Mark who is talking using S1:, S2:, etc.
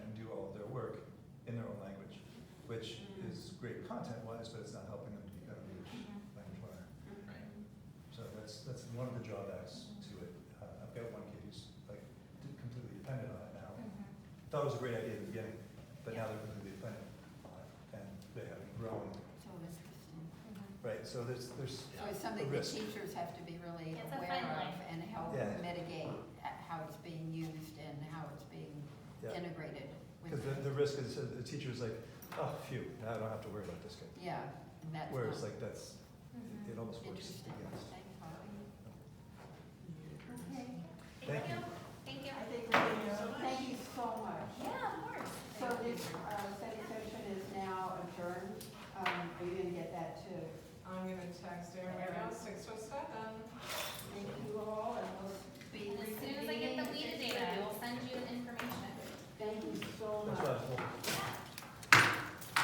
S1: content wise, but it's not helping them to become a native language learner. So that's, that's one of the drawbacks to it. Uh, I've got one kid who's like d- completely dependent on it now. Thought it was a great idea at the beginning, but now they're completely dependent on it and they haven't grown.
S2: So it's,
S1: Right, so there's, there's
S2: so it's
S1: a
S2: something the
S1: risk.
S2: teachers have to be really
S3: It's a
S2: aware
S3: fine
S2: of
S3: line.
S2: and help
S1: Yeah.
S2: mitigate uh, how it's being used and how it's being
S1: Yeah,
S2: integrated with.
S1: because the, the risk is that the teacher's like, oh, phew, now I don't have to worry about this kid.
S2: Yeah, and that's not Mm-hmm.
S1: Whereas like that's, it- it almost works against.
S2: interesting, thanks, Holly.
S4: Okay,
S1: Thank you.
S3: Thank you.
S4: I think we're gonna, thank you so much.
S3: Yeah, of course.
S4: So this, uh, study session is now adjourned. Um, are you gonna get that too?
S5: I'm gonna text her right now, six oh seven.
S4: Thank you all, and we'll,
S2: Be
S3: And as soon as I get the
S2: reconvening.
S3: WIDA data, I will send you the information.
S4: thank you so
S1: That's
S4: much.
S1: what I was hoping.